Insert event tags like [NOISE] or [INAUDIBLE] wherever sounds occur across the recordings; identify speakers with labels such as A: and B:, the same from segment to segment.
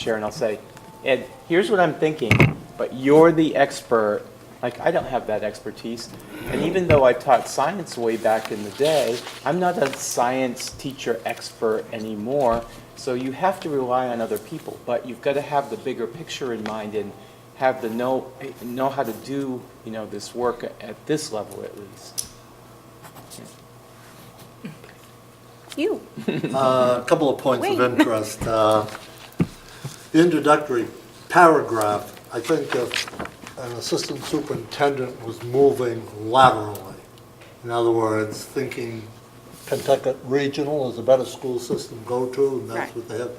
A: chair and I'll say, Ed, here's what I'm thinking, but you're the expert. Like, I don't have that expertise. And even though I taught science way back in the day, I'm not a science teacher expert anymore. So you have to rely on other people, but you've got to have the bigger picture in mind and have the know, know how to do, you know, this work at this level at least.
B: You.
C: [LAUGHS] Uh, A couple of points of
B: Wait.
C: interest. Uh, The introductory paragraph, I think if an assistant superintendent was moving laterally, in other words, thinking Pentucket Regional is a better school system go-to, and that's
B: Right.
C: what they have.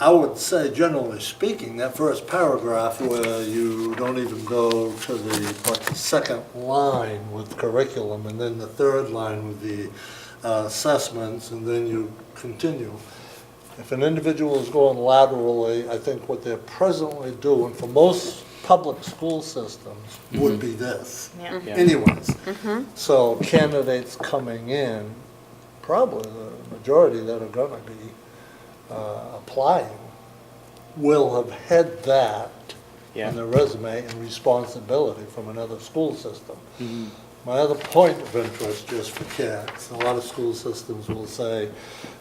C: I would say, generally speaking, that first paragraph where you don't even go to the, but the second line with curriculum, and then the third line with the uh, assessments, and then you continue. If an individual is going laterally, I think what they're presently doing for most public school systems would be this.
B: Yeah.
A: Yeah.
C: Anyways, so candidates coming in, probably the majority that are gonna be uh, applying will have had that
A: Yeah.
C: on their resume and responsibility from another school system. My other point of interest, just for kids, a lot of school systems will say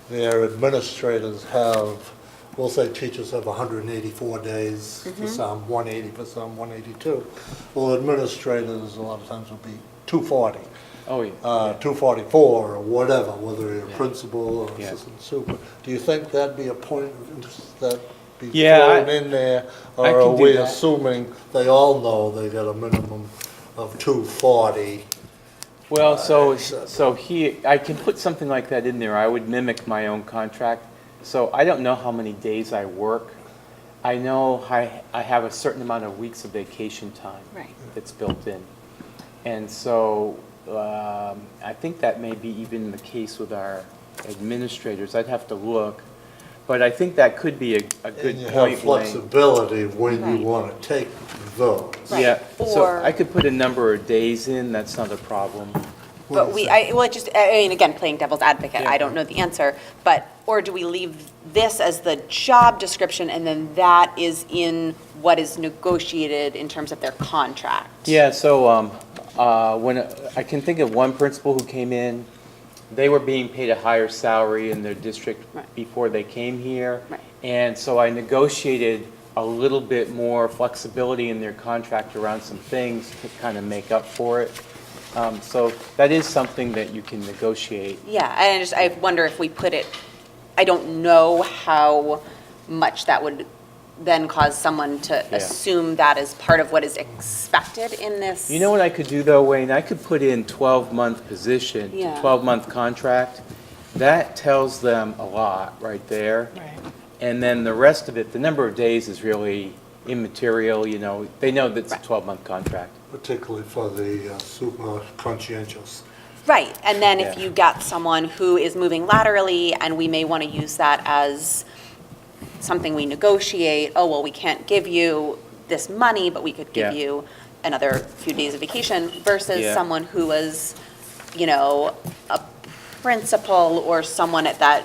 C: their administrators have, will say teachers have 184 days for some, 180 for some, 182. Well, administrators, a lot of times will be 240,
A: Oh, yeah.
C: uh, 244 or whatever, whether you're
A: Yeah.
C: a principal or
A: Yeah.
C: assistant super. Do you think that'd be a point of interest that be
A: Yeah, I-
C: thrown in there?
A: I
C: Or
A: can
C: are
A: do
C: we
A: that.
C: assuming they all know they got a minimum of 240? Uh,
A: Well, so,
C: so-
A: so he, I can put something like that in there. I would mimic my own contract. So I don't know how many days I work. I know I, I have a certain amount of weeks of vacation time.
B: Right.
A: That's built in. And so, um, I think that may be even the case with our administrators. I'd have to look. But I think that could be a, a good
C: And you have
A: point, Wayne.
C: flexibility when
B: Right.
C: you want to take those.
B: Right.
A: Yeah, so
B: Or-
A: I could put a number of days in, that's not a problem.
C: What do
B: But
C: you
B: we,
C: think?
B: I, well, it just, I mean, again, playing devil's advocate, I don't know the answer, but, or do we leave this as the job description and then that is in what is negotiated in terms of their contract?
A: Yeah, so, um, uh, when, I can think of one principal who came in, they were being paid a higher salary in their district
B: Right.
A: before they came here.
B: Right.
A: And so I negotiated a little bit more flexibility in their contract around some things to kind of make up for it. Um, so that is something that you can negotiate.
B: Yeah, and I just, I wonder if we put it, I don't know how much that would then cause someone to
A: Yeah.
B: assume that is part of what is expected in this.
A: You know what I could do though, Wayne? I could put in 12-month position,
B: Yeah.
A: 12-month contract. That tells them a lot right there.
B: Right.
A: And then the rest of it, the number of days is really immaterial, you know, they know that it's a
B: Right.
A: 12-month contract.
C: Particularly for the uh, super conscientious.
B: Right, and then if
A: Yeah.
B: you get someone who is moving laterally, and we may want to use that as something we negotiate, oh, well, we can't give you this money, but we could give
A: Yeah.
B: you another few days of vacation, versus
A: Yeah.
B: someone who was, you know, a principal or someone at that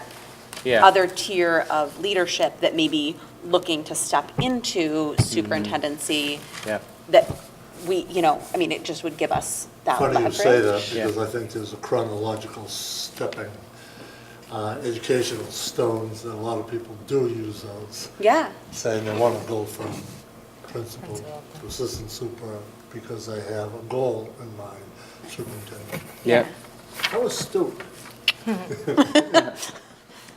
A: Yeah.
B: other tier of leadership that may be looking to step into superintendency,
A: Yeah,
B: that we, you know, I mean, it just would give us that leverage.
C: Funny you say that,
A: Yeah.
C: because I think there's a chronological stepping, uh, educational stones, and a lot of people do use those,
B: Yeah.
C: saying they want to go from principal to assistant super because they have a goal in mind, superintendent.
A: yeah,
C: That was stupid.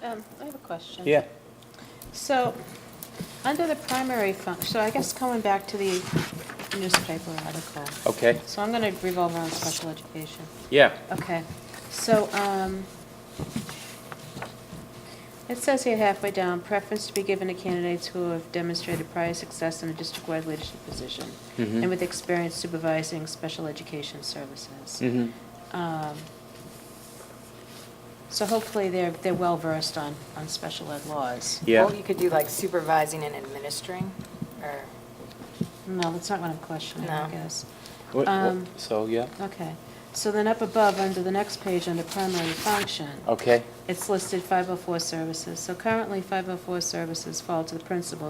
D: Um, I have a question.
A: yeah.
D: So, under the primary function, so I guess going back to the newspaper article.
A: Okay,
D: So I'm going to revolve around special education.
A: yeah.
D: Okay, so, um, it says here halfway down, preference to be given to candidates who have demonstrated prior success in a district-wide leadership position
A: Mhm.
D: and with experience supervising special education services.
A: Mhm.
D: Um, So hopefully they're, they're well-versed on, on special ed laws.
A: Yeah.
E: Well, you could do like supervising and administering, or,
D: No, that's not what I'm questioning, I
E: No.
D: guess.
A: What- what-
D: Um,
A: So, yeah,
D: Okay. So then up above, under the next page, under primary function,
A: Okay.
D: oh it's listed 504 services. So currently, 504 services fall to the principals.